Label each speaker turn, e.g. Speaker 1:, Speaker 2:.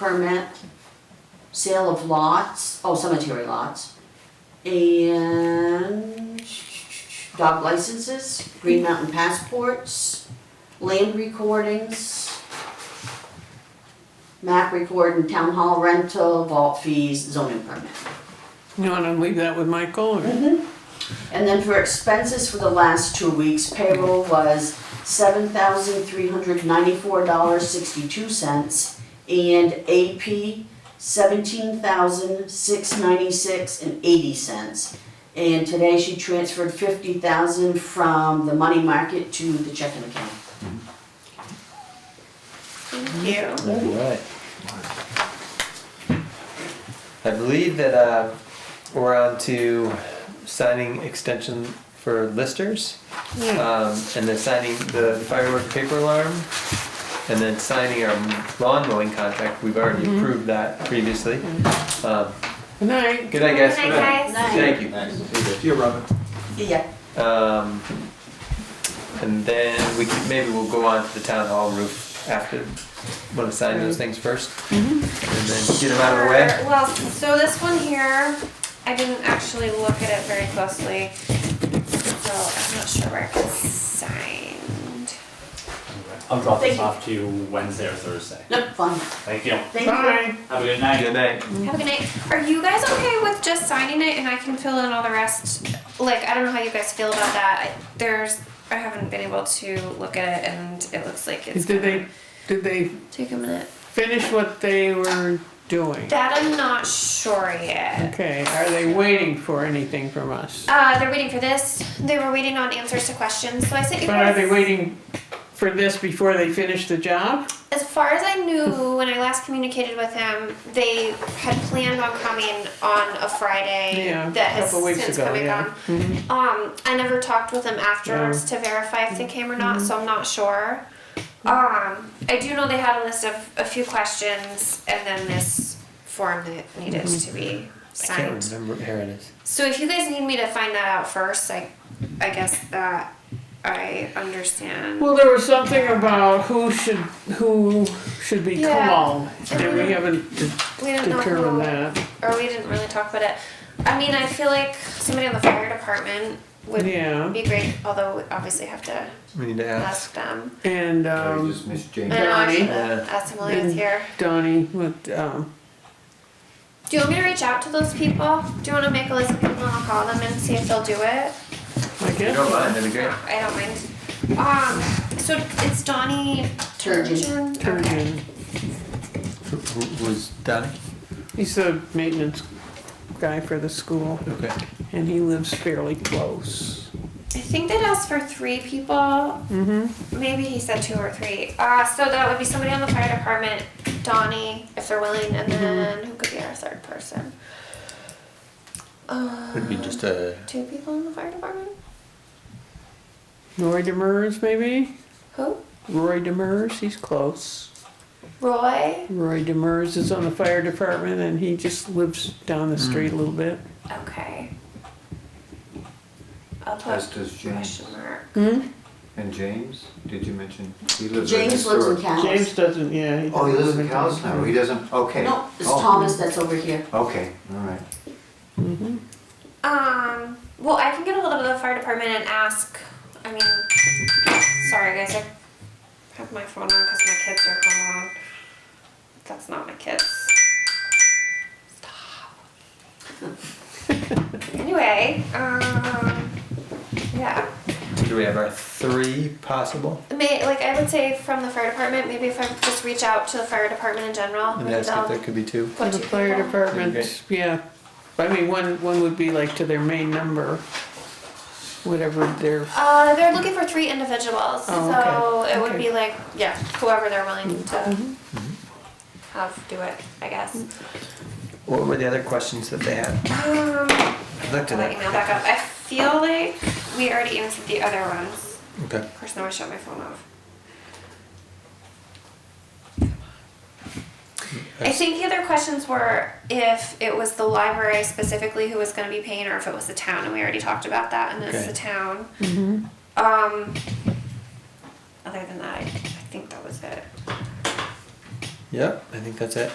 Speaker 1: permit, sale of lots, oh, cemetery lots, and dog licenses, Green Mountain passports, land recordings, map recording, town hall rental, vault fees, zoning permit.
Speaker 2: You want to leave that with Michael or?
Speaker 1: Mm-hmm. And then for expenses for the last two weeks, payroll was seven thousand three hundred ninety-four dollars sixty-two cents and AP seventeen thousand six ninety-six and eighty cents. And today she transferred fifty thousand from the money market to the checking account.
Speaker 3: Thank you.
Speaker 4: All right. I believe that uh, we're on to signing extension for listers, um, and then signing the firework paper alarm, and then signing our lawn mowing contract. We've already approved that previously. Um,
Speaker 2: Good night.
Speaker 4: Good night, guys.
Speaker 3: Good night, guys.
Speaker 4: Thank you.
Speaker 5: Thanks. See you, Robin.
Speaker 1: Yeah.
Speaker 4: Um, and then we could, maybe we'll go on to the town hall roof after. Want to sign those things 1st and then get them out of the way.
Speaker 3: Or- Well, so this one here, I didn't actually look at it very closely, so I'm not sure where it's signed.
Speaker 6: I'll drop
Speaker 1: Thank
Speaker 6: this
Speaker 1: you.
Speaker 6: off to you Wednesday or Thursday.
Speaker 1: Nope, fun.
Speaker 6: Thank you.
Speaker 1: Thank you.
Speaker 2: Bye.
Speaker 6: Have a good night.
Speaker 4: Good night.
Speaker 3: Have a good night. Are you guys okay with just signing it and I can fill in all the rest? Like, I don't know how you guys feel about that. I- There's, I haven't been able to look at it and it looks like it's
Speaker 2: Did
Speaker 3: gonna
Speaker 2: they, did they
Speaker 3: take a minute.
Speaker 2: finish what they were doing?
Speaker 3: That I'm not sure yet.
Speaker 2: Okay, are they waiting for anything from us?
Speaker 3: Uh, they're waiting for this. They were waiting on answers to questions, so I sent you
Speaker 2: But are
Speaker 3: guys.
Speaker 2: they waiting for this before they finish the job?
Speaker 3: As far as I knew, when I last communicated with him, they had planned on coming on a Friday
Speaker 2: Yeah,
Speaker 3: that has
Speaker 2: couple weeks
Speaker 3: since
Speaker 2: ago,
Speaker 3: come and
Speaker 2: yeah. Mm-hmm.
Speaker 3: gone. Um, I never talked with him afterwards to verify if they
Speaker 2: Mm-hmm.
Speaker 3: came or not, so I'm not sure. Um, I do know they had a list of a few questions and then this form that needed
Speaker 2: Mm-hmm.
Speaker 3: to be
Speaker 4: I can't
Speaker 3: signed.
Speaker 4: remember. Here it is.
Speaker 3: So if you guys need me to find that out first, I, I guess that I understand.
Speaker 2: Well, there was something about who should, who should be
Speaker 3: Yeah.
Speaker 2: called. And we haven't de-
Speaker 3: we don't know who-
Speaker 2: determined that.
Speaker 3: or we didn't really talk about it. I mean, I feel like somebody on the fire department would
Speaker 2: Yeah,
Speaker 3: be great, although we obviously have to
Speaker 4: We need to ask.
Speaker 3: ask them.
Speaker 2: and
Speaker 5: I
Speaker 2: um,
Speaker 5: just missed James.
Speaker 3: I know I
Speaker 2: Donnie.
Speaker 3: should
Speaker 4: Yeah.
Speaker 3: have asked him while
Speaker 2: Mm.
Speaker 3: he was here.
Speaker 2: Donnie with, um,
Speaker 3: Do you want me to reach out to those people? Do you want to make a list of people and I'll call them and see if they'll do it?
Speaker 2: I
Speaker 4: If you don't
Speaker 2: guess,
Speaker 4: mind, that'd be great.
Speaker 3: I don't mind. Um, so it's Donnie
Speaker 1: Turgeon.
Speaker 3: Turgeon? Okay.
Speaker 2: Turgeon.
Speaker 4: Who, who was Donnie?
Speaker 2: He's the maintenance guy for the school,
Speaker 4: Okay.
Speaker 2: and he lives fairly close.
Speaker 3: I think they'd asked for three people.
Speaker 2: Mm-hmm.
Speaker 3: Maybe he said two or three. Uh, so that would be somebody on the fire department, Donnie, if they're willing, and
Speaker 4: Mm-hmm.
Speaker 3: then who could be our third person? Uh,
Speaker 4: Would be just a.
Speaker 3: two people in the fire department.
Speaker 2: Roy Demers, maybe?
Speaker 3: Who?
Speaker 2: Roy Demers, he's close.
Speaker 3: Roy.
Speaker 2: Roy Demers is on the fire department, and he just lives down the street a little bit.
Speaker 3: Okay. I'll
Speaker 5: As
Speaker 3: put
Speaker 5: does James.
Speaker 3: question mark.
Speaker 2: Hmm?
Speaker 5: And James, did you mention? He lives in
Speaker 1: James lives in
Speaker 5: Historic.
Speaker 1: Calais.
Speaker 2: James doesn't, yeah.
Speaker 5: Oh, he
Speaker 2: doesn't
Speaker 5: lives in
Speaker 2: live
Speaker 5: Callis now, he doesn't, okay.
Speaker 1: No, it's
Speaker 5: Oh,
Speaker 1: Thomas that's over here.
Speaker 5: Okay, all right.
Speaker 3: Um. Well, I can get a hold of the fire department and ask. I mean, sorry guys, I have my phone on because my kids are home alone. That's not my kids. Stop. anyway, um, yeah.
Speaker 4: Do we have our three possible?
Speaker 3: May, like I would say from the fire department, maybe if I just reach out to the fire department in general,
Speaker 4: And
Speaker 3: maybe
Speaker 4: ask
Speaker 3: they'll
Speaker 4: if there could be two.
Speaker 2: For
Speaker 3: put
Speaker 2: the
Speaker 3: two
Speaker 2: fire
Speaker 3: people.
Speaker 2: department, yeah. I mean, one, one would be like to their main number, whatever their,
Speaker 3: Uh, they're looking for three individuals,
Speaker 2: Oh,
Speaker 3: so
Speaker 2: okay.
Speaker 3: it would
Speaker 2: Okay. Mm-hmm.
Speaker 3: be like, yeah, whoever they're willing to have do it, I guess.
Speaker 4: What were the other questions that they had?
Speaker 3: Um,
Speaker 4: I looked at
Speaker 3: I'll let you
Speaker 4: it.
Speaker 3: know back up. I feel like we already answered the other ones.
Speaker 4: Okay.
Speaker 3: Of course, now I shut my phone off. I think the other questions were if it was the library specifically who was gonna be paying or if it was the town, and we already talked about that, and it's
Speaker 4: Okay.
Speaker 3: the town. Um, other than that, I I think that was it.
Speaker 4: Yep. I think that's it.